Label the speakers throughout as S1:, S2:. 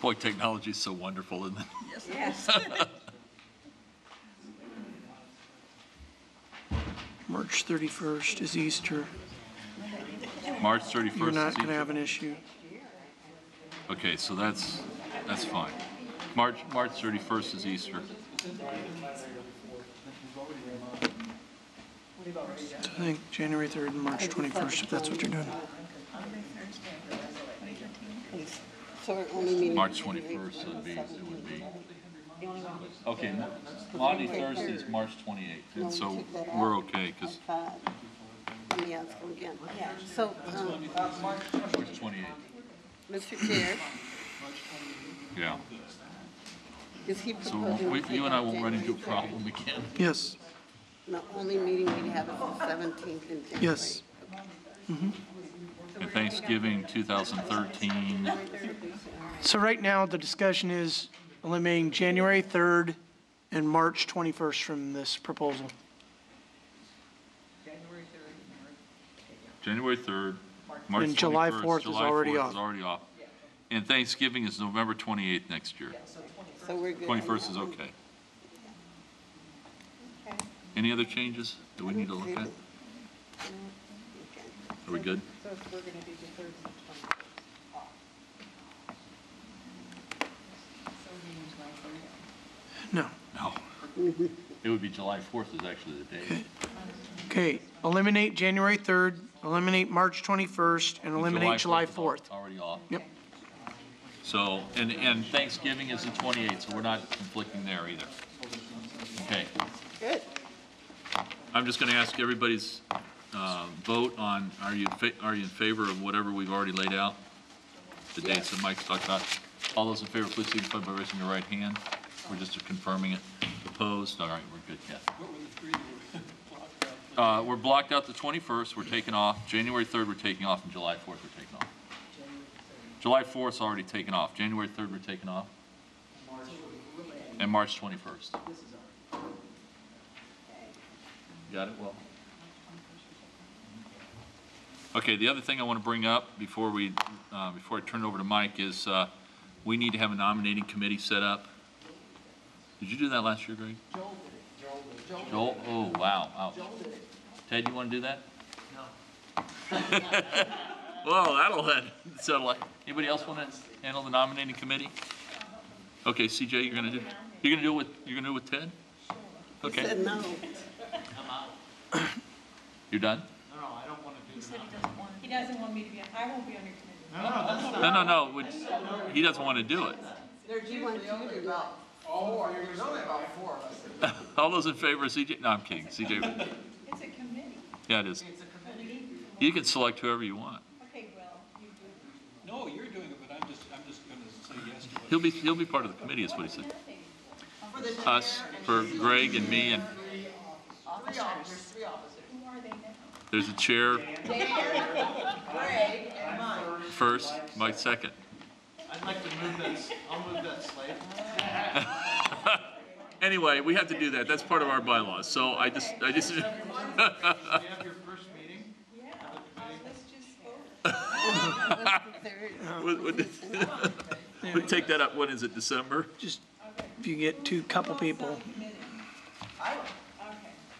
S1: Boy, technology is so wonderful, isn't it?
S2: Yes.
S3: March 31st is Easter.
S1: March 31st is
S3: You're not going to
S1: Easter.
S3: have an issue.
S1: Okay, so that's, that's fine. March, March 31st is Easter.
S3: I think January 3rd and March 21st, if that's what you're doing.
S4: So our only meeting.
S1: March 21st would be, it would be. Okay, Mo- Monday, Thursday is March 28th, and so we're okay, because
S4: Five. Let me ask him again. So, um,
S1: March 28th,
S4: Mr. Chair,
S1: yeah.
S4: is he
S1: So
S4: proposing?
S1: we-
S4: to
S1: you and I
S4: take
S1: won't run into a
S4: January third?
S1: problem again.
S3: Yes,
S4: The only meeting we have is the seventeenth in January.
S3: yes.
S1: And Thanksgiving 2013,
S3: So right now, the discussion is eliminating January 3rd and March 21st from this proposal.
S1: January 3rd, March 21st.
S3: And July 4th is
S1: July
S3: already
S1: 4th
S3: off.
S1: is already off. And Thanksgiving is November 28th next year.
S4: So we're good. on
S1: 21st is
S4: that one.
S1: okay. Any other changes that we need to look at? Are we good?
S2: So if we're gonna do the third and the
S3: No.
S1: No. It would be July 4th is actually the day.
S3: Okay, eliminate January 3rd, eliminate March 21st, and eliminate July
S1: is al-
S3: 4th.
S1: Already off.
S3: Yep.
S1: So, and, and Thanksgiving is the 28th, so we're not conflicting there either. Okay.
S4: Good.
S1: I'm just going to ask everybody's uh, vote on, are you, fa- are you in favor of whatever we've already laid out? The dates that Mike's talked about. All those in favor, please signify by raising your right hand. We're just confirming it. Opposed? All right, we're good, Kathy. Uh, We're blocked out the 21st, we're taking off. January 3rd, we're taking off, and July 4th, we're taking off. July 4th's already taken off. January 3rd, we're taking off. And March 21st. Got it, well. Okay, the other thing I want to bring up before we, uh, before I turn it over to Mike is, uh, we need to have a nominating committee set up. Did you do that last year, Greg? Joel did. Joel oh, wow, ouch. Ted, you want to do that? No. Well, that'll, that settle it. Anybody else want to handle the nominating committee? Okay, CJ, you're going to do, you're going to do it with, you're going to do it with Ted? Okay.
S4: Said no.
S1: You're done?
S2: He doesn't want me to be, I won't be on your committee.
S1: No, no, no, we- he doesn't want to do it.
S4: He wants you to go.
S1: All those in favor, of CJ, no, I'm kidding, CJ,
S2: It's a committee.
S1: yeah, it is. You can select whoever you want.
S2: Okay, well, you do.
S5: No, you're doing it, but I'm just, I'm just gonna say yes to it.
S1: He'll be, he'll be part of the committee, is what he said. Us, for Greg and me, and
S2: Who are they now?
S1: there's a chair. First, Mike second.
S6: I'd like to move that, I'll move that slate.
S1: Anyway, we have to do that, that's part of our bylaws, so I just, I just,
S6: You have your first meeting?
S2: uh, Let's just vote.
S1: we- we- we take that up, when is it, December?
S3: Just, if you get two, couple people,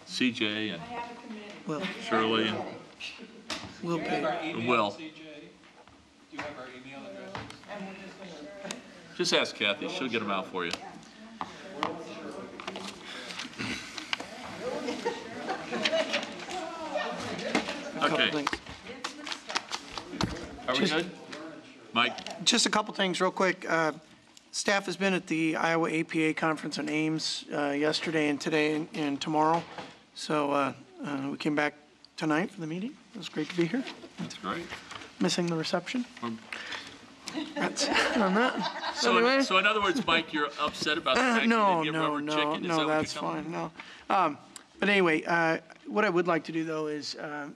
S1: CJ and
S3: we'll,
S1: Shirley and-
S3: we'll pay.
S5: Our email,
S1: Well-
S5: CJ, do you have our email address?
S1: Just ask Kathy, she'll get them out for you.
S3: Couple
S1: Okay,
S3: things.
S1: are we
S3: Just-
S1: good? Mike,
S3: Just a couple things, real quick. Uh, Staff has been at the Iowa APA Conference on Ames uh, yesterday and today and- and tomorrow. So uh, uh, we came back tonight for the meeting. It was great to be here,
S1: that's great.
S3: missing the reception.
S1: Um,
S3: That's, on that.
S1: So, in-
S3: Anyway.
S1: so in other words, Mike, you're upset about the fact you
S3: Uh,
S1: didn't
S3: No,
S1: get
S3: no,
S1: rubber
S3: no,
S1: chicken? Is that
S3: no,
S1: what you're
S3: that's
S1: telling me?
S3: fine, no. Um, But anyway, uh, what I would like to do, though, is uh,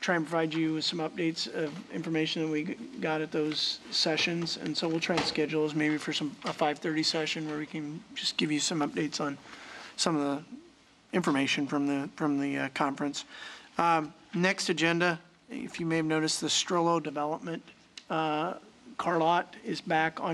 S3: try and provide you with some updates of information that we g- got at those sessions. And so we'll try and schedule those maybe for some, a 5:30 session where we can just give you some updates on some of the information from the, from the uh, conference. Um, Next agenda, if you may have noticed, the Strollo Development uh, car lot is back on